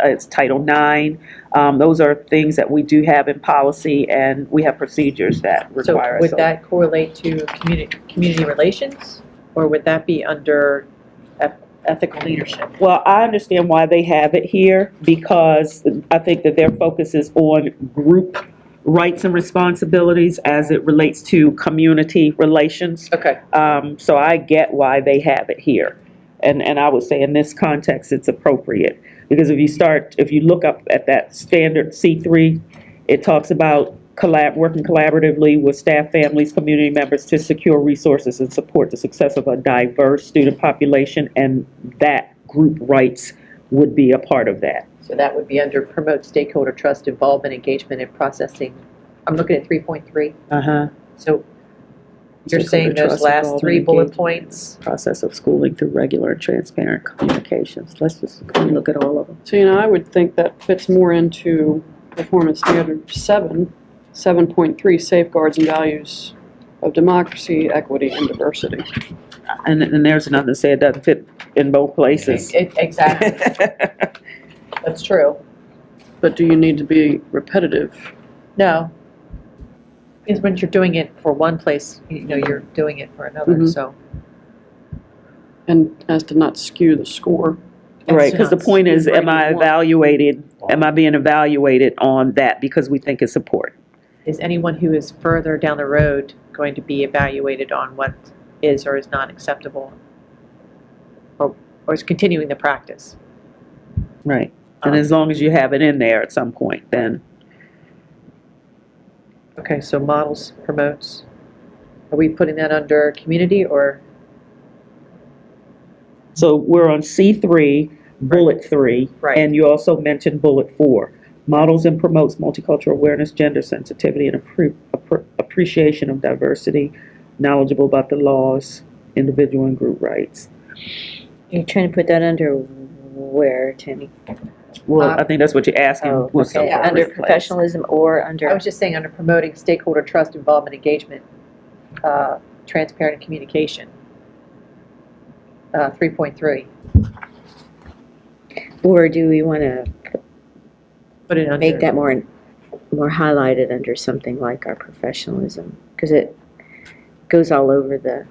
uh, it's Title IX. Um, Those are things that we do have in policy, and we have procedures that So require us. would to- that correlate to community, community relations? Or would that be under eth- ethical leadership? Well, I understand why they have it here, because I think that their focus is on group rights and responsibilities as it relates to community relations. Okay, Um, So I get why they have it here. And, and I would say in this context, it's appropriate. Because if you start, if you look up at that standard C3, it talks about collab, working collaboratively with staff, families, community members to secure resources and support the success of a diverse student population. And that group rights would be a part of that. so that would be under promote stakeholder trust, involvement, engagement, and processing. I'm looking at 3.3. Uh-huh. So you're saying those last three bullet points? Process of schooling through regular and transparent communications. Let's just look at all of them. So, you know, I would think that fits more into performance standard seven, seven point three, safeguards and values of democracy, equity, and diversity. And, and there's nothing that say it doesn't fit in both places. It- Exactly, that's true. But do you need to be repetitive? No. Because when you're doing it for one place, you know, you're doing it for another, Mhm. so. And as to not skew the score. Right, because the point is, am I Right. evaluated, am I being evaluated on that because we think it's support? Is anyone who is further down the road going to be evaluated on what is or is not acceptable? Or, or is continuing the practice? Right. And as long as you have it in there at some point, then, Okay, so models, promotes. Are we putting that under community or? so we're on C three, bullet three. Right. And you also mentioned bullet four, models and promotes multicultural awareness, gender sensitivity, and appre- appre- appreciation of diversity, knowledgeable about the laws, individual and group rights. You're trying to put that under where, Tammy? Well, Um, I think that's what you're asking. Oh, was okay, somewhere under replaced. professionalism or I under, was just saying under promoting stakeholder trust, involvement, engagement, uh, transparent communication. Uh, 3.3, or do we want to put it under. make that more, more highlighted under something like our professionalism? Because it goes all over the,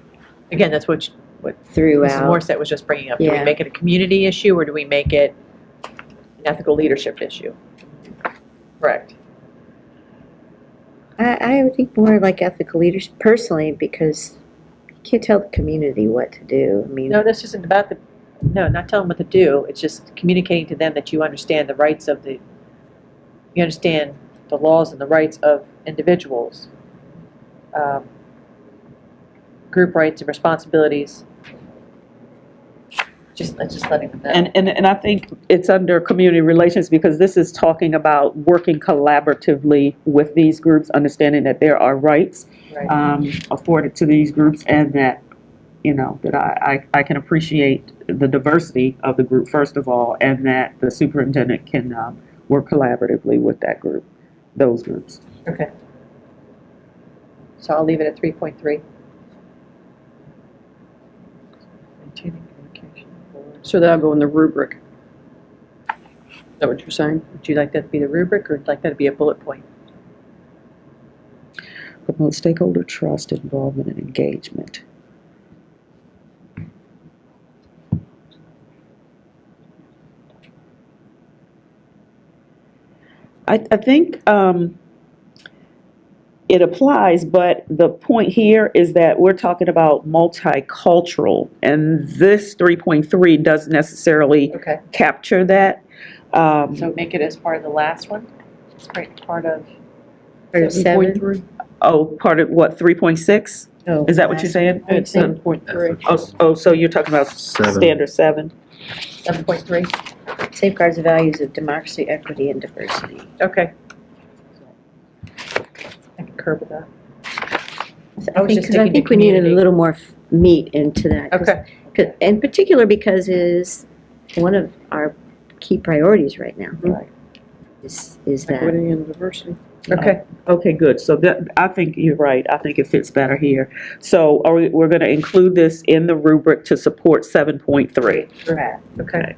Again, that's what you- Mrs. throughout. Morissette was just bringing up. Do we Yeah. make it a community issue or do we make it an ethical leadership issue? Correct. I, I would think more like ethical leaders personally, because you can't tell the community what to do. I mean, No, this isn't about the, no, not telling what to do. It's just communicating to them that you understand the rights of the, you understand the laws and the rights of individuals. Um, Group rights and responsibilities. Just, let's just letting them know. And, and, and I think it's under community relations because this is talking about working collaboratively with these groups, understanding that there are rights Right. um, afforded to these groups and that, you know, that I, I I can appreciate the diversity of the group, first of all, and that the superintendent can um, work collaboratively with that group, those groups. Okay. So I'll leave it at 3.3. Maintaining communication. So that'll go in the rubric. Is that what you're saying? Would you like that to be the rubric, or would you like that to be a bullet point? Promote stakeholder trust, involvement, and engagement. I, I think um, it applies, but the point here is that we're talking about multicultural, and this 3.3 doesn't necessarily Okay. capture that. Um, So make it as part of the last one? It's great, part of, or seven. 7.3? oh, part of what, 3.6? Oh, Is that what you're saying? It's seven point three. Oh, s- oh, so you're talking about Seven. standard seven? 7.3? Safeguards the values of democracy, equity, and diversity. Okay. I concur with that. I I was think, just 'cause I thinking the think we needed a community. little more f- meat into that. 'cause- Okay. 'cause- In particular because it is one of our key priorities right now. Right. Is, is that. Equity and diversity. Okay. Okay, good. So that, I think you're right. I think it fits better here. So are we, we're gonna include this in the rubric to support seven point three. Okay.